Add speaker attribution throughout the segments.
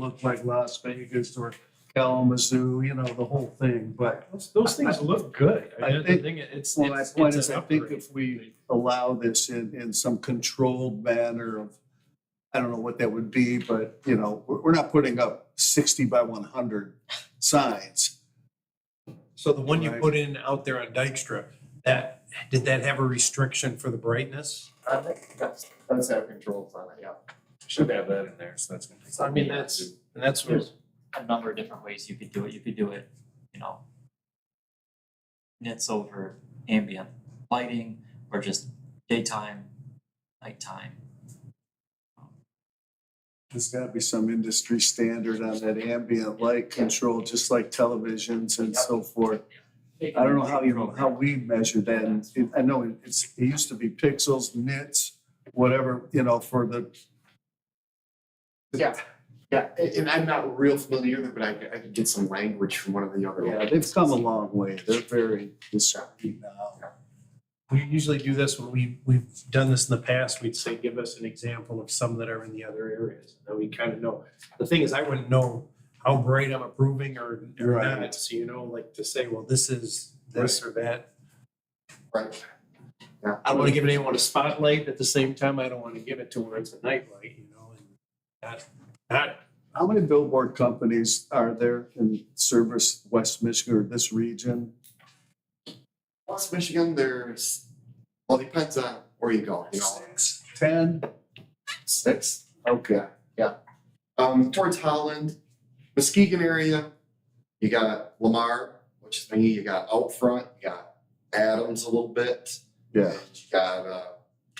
Speaker 1: look like Las Vegas or Kalamazoo, you know, the whole thing, but
Speaker 2: Those, those things look good.
Speaker 1: I
Speaker 2: I mean, the
Speaker 1: think-
Speaker 2: thing, it's,
Speaker 1: well, my
Speaker 2: it's,
Speaker 1: point
Speaker 2: it's
Speaker 1: is,
Speaker 2: an
Speaker 1: I think
Speaker 2: upgrade.
Speaker 1: if we allow this in, in some controlled manner of, I don't know what that would be, but, you know, we're, we're not putting up sixty by one hundred signs.
Speaker 2: So the one you
Speaker 1: Right.
Speaker 2: put in out there on Dykstra, that, did that have a restriction for the brightness?
Speaker 3: I think that's, that's have controls on it, yeah.
Speaker 4: Should have that in there, so that's. gonna be-
Speaker 2: So I mean, that's, and that's what,
Speaker 3: There's a number of different ways you could do it, you could do it, you know. Nits over ambient lighting or just daytime, nighttime.
Speaker 1: There's gotta be some industry standard on that ambient light control, just like televisions and so forth. I don't know how you, how we measure that, and it- I know it- it's, it used to be pixels, nits, whatever, you know, for the,
Speaker 4: Yeah,
Speaker 5: Yeah, a- and, I'm not real familiar with it, but I, could- I could get some language from one of the other.
Speaker 1: yeah, they've come a long way, they're very discreet now.
Speaker 2: we usually do this when we, we've done this in the past, we'd say, give us an example of some that are in the other areas. And we kind of know, the thing is, I wouldn't know how bright I'm approving or, or
Speaker 1: Right.
Speaker 2: not, so you know, like to say, well, this is this or that.
Speaker 5: Right.
Speaker 2: I don't want to give anyone a spotlight, at the same time, I don't want to give it to where it's a nightlight, you know, and not, not,
Speaker 1: How many billboard companies are there in service West Michigan or this region?
Speaker 5: West Michigan, there's, well, depends on where you go, you know,
Speaker 1: Six, ten?
Speaker 5: six.
Speaker 1: Okay.
Speaker 5: Um, towards Holland, Muskegon area, you got Lamar, which is me, you got out front, you got Adams a little bit.
Speaker 1: Yeah,
Speaker 5: You got, uh,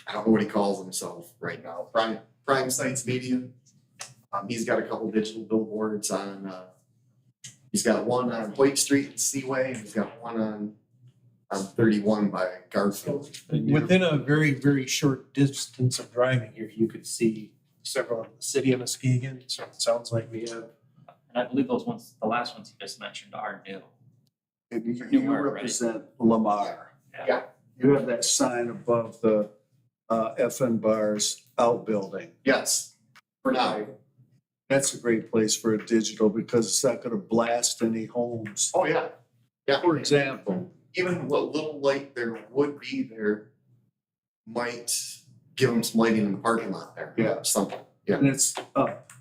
Speaker 5: I don't know what he calls himself right now, Prime, Prime Sites Media. Um, he's got a couple digital billboards on, uh, he's got one on Hoyt Street and Seaway, and he's got one on, on thirty-one by Garfield.
Speaker 2: within a very, very short distance of driving here, you could see several, in the city of Muskegon, so it sounds like we have.
Speaker 3: And I believe those ones, the last ones you just mentioned are new.
Speaker 1: and you-
Speaker 3: New
Speaker 1: you
Speaker 3: York, right?
Speaker 1: represent Lamar.
Speaker 5: Yeah.
Speaker 1: You have that sign above the uh, FN Bars outbuilding.
Speaker 5: Yes, for now.
Speaker 1: That's a great place for a digital because it's not gonna blast any homes.
Speaker 5: Oh, yeah. Yeah.
Speaker 1: For example,
Speaker 5: Even what little light there would be there might give him some lighting in the parking lot there.
Speaker 1: Yeah.
Speaker 5: Something, yeah,
Speaker 1: and it's up,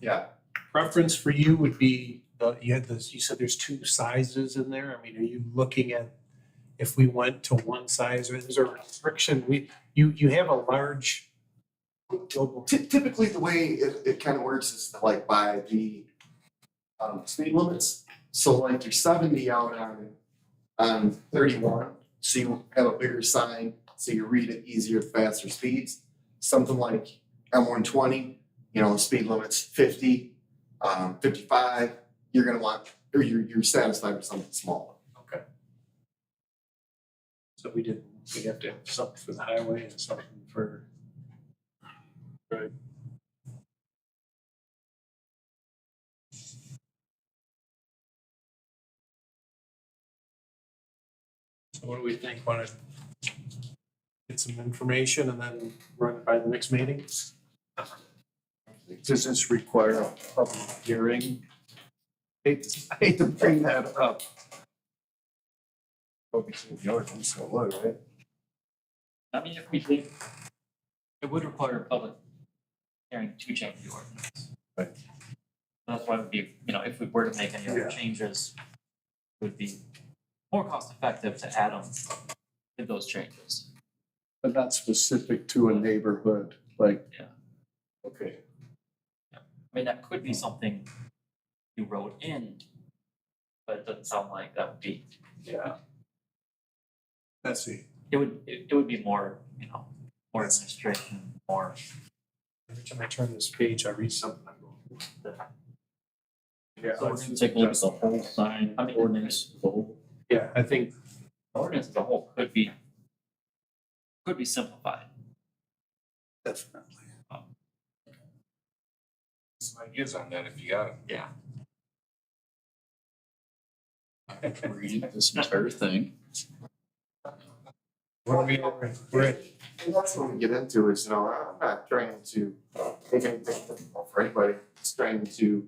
Speaker 5: yeah.
Speaker 2: Preference for you would be, uh, you had this, you said there's two sizes in there, I mean, are you looking at if we went to one size, or is there a restriction, we, you, you have a large global.
Speaker 5: Ty- Typically, the way it, it kind of works is like by the um, speed limits. So like you're seventy out on, on thirty-one, so you have a bigger sign, so you read it easier, faster speeds. Something like M one twenty, you know, speed limit's fifty, um, fifty-five, you're gonna want, or you're, you're satisfied with something smaller.
Speaker 2: So we did, we have to have something for the highway and something for. Right. So what do we think, wanna get some information and then run it by the next meeting?
Speaker 1: does this require a public hearing? Hate- I hate to bring that up.
Speaker 3: I mean, if we did, it would require a public hearing to change the ordinance.
Speaker 4: Right.
Speaker 3: That's why it would be, you know, if we were to make any
Speaker 1: Yeah.
Speaker 3: other changes, it would be more cost effective to add them to those changes.
Speaker 1: But not specific to a neighborhood, like.
Speaker 3: Yeah.
Speaker 1: Okay.
Speaker 3: I mean, that could be something you wrote in, but it doesn't sound like that would be,
Speaker 1: Yeah. That's it.
Speaker 3: it would, it, it would be more, you know, more administration, more.
Speaker 2: Every time I turn this page, I read something, I'm going.
Speaker 3: So we're gonna take a look at the whole sign ordinance, the whole.
Speaker 2: Yeah, I think
Speaker 3: Ordinance as a whole could be, could be simplified.
Speaker 1: Definitely.
Speaker 4: Some ideas on that if you got
Speaker 3: Yeah.
Speaker 4: it. Read this entire thing.
Speaker 2: What are we, we're at- we're at
Speaker 5: And that's what we get uh, into is, you know, I'm not trying to make anything difficult for anybody, just trying to